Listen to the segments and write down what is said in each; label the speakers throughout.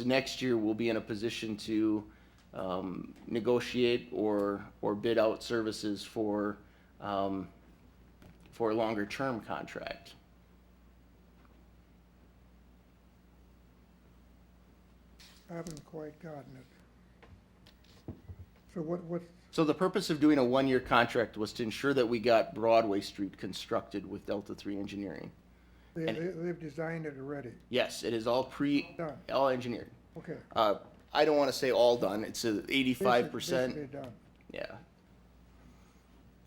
Speaker 1: next year we'll be in a position to um, negotiate or, or bid out services for, um, for a longer term contract.
Speaker 2: I haven't quite gotten it. So what, what,
Speaker 1: So the purpose of doing a one-year contract was to ensure that we got Broadway Street constructed with Delta Three Engineering.
Speaker 2: they,
Speaker 1: And-
Speaker 2: they- they've designed it already,
Speaker 1: Yes, it is all pre,
Speaker 2: Done.
Speaker 1: all engineered.
Speaker 2: okay.
Speaker 1: Uh, I don't want to say all done, it's eighty-five
Speaker 2: Basically
Speaker 1: percent,
Speaker 2: done.
Speaker 1: yeah.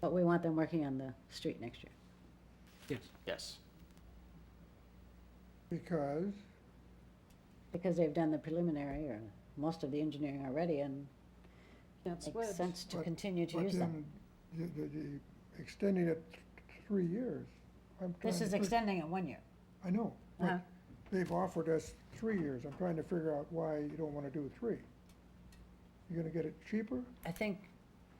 Speaker 3: But we want them working on the street next year.
Speaker 4: Yes.
Speaker 1: Yes.
Speaker 2: Because,
Speaker 3: Because they've done the preliminary or most of the engineering already and
Speaker 5: That's
Speaker 3: makes
Speaker 5: what,
Speaker 3: sense to
Speaker 2: But-
Speaker 3: continue to
Speaker 2: but
Speaker 3: use them.
Speaker 2: then, the, the, the extending it th- th- three years. I'm
Speaker 3: This
Speaker 2: trying
Speaker 3: is
Speaker 2: to fig-
Speaker 3: extending it one year.
Speaker 2: I know,
Speaker 3: Uh-huh.
Speaker 2: but they've offered us three years. I'm trying to figure out why you don't wanna do three. You're gonna get it cheaper?
Speaker 3: I think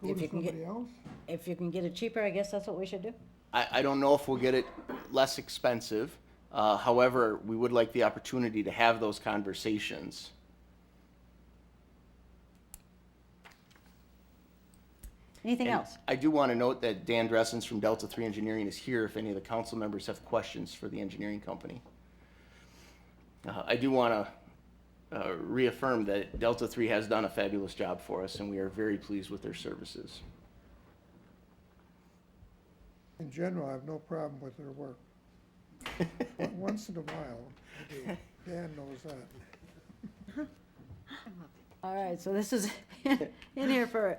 Speaker 2: Go
Speaker 3: If
Speaker 2: to
Speaker 3: you can get-
Speaker 2: somebody else?
Speaker 3: if you can get it cheaper, I guess that's what we should do.
Speaker 1: I, I don't know if we'll get it less expensive. Uh, however, we would like the opportunity to have those conversations.
Speaker 3: Anything
Speaker 1: And
Speaker 3: else?
Speaker 1: I do want to note that Dan Dressens from Delta Three Engineering is here if any of the council members have questions for the engineering company. Uh, I do want to uh, reaffirm that Delta Three has done a fabulous job for us and we are very pleased with their services.
Speaker 2: In general, I have no problem with their work. O- Once in a while, I do. Dan knows that.
Speaker 3: All right, so this is in here for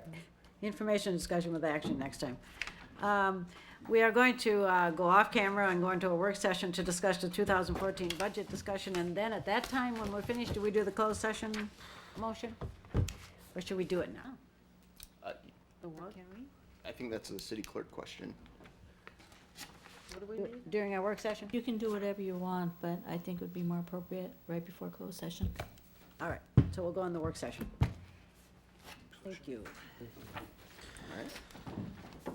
Speaker 3: information discussion with action next time. Um, We are going to uh, go off camera and go into a work session to discuss the 2014 budget discussion. And then at that time, when we're finished, do we do the closed session motion? Or should we do it now?
Speaker 1: Uh,
Speaker 5: the what,
Speaker 1: I think that's a city clerk question.
Speaker 5: what do we need?
Speaker 3: During our work session?
Speaker 6: You can do whatever you want, but I think it would be more appropriate right before closed session.
Speaker 3: All right, so we'll go in the work session. Thank you.
Speaker 1: All right.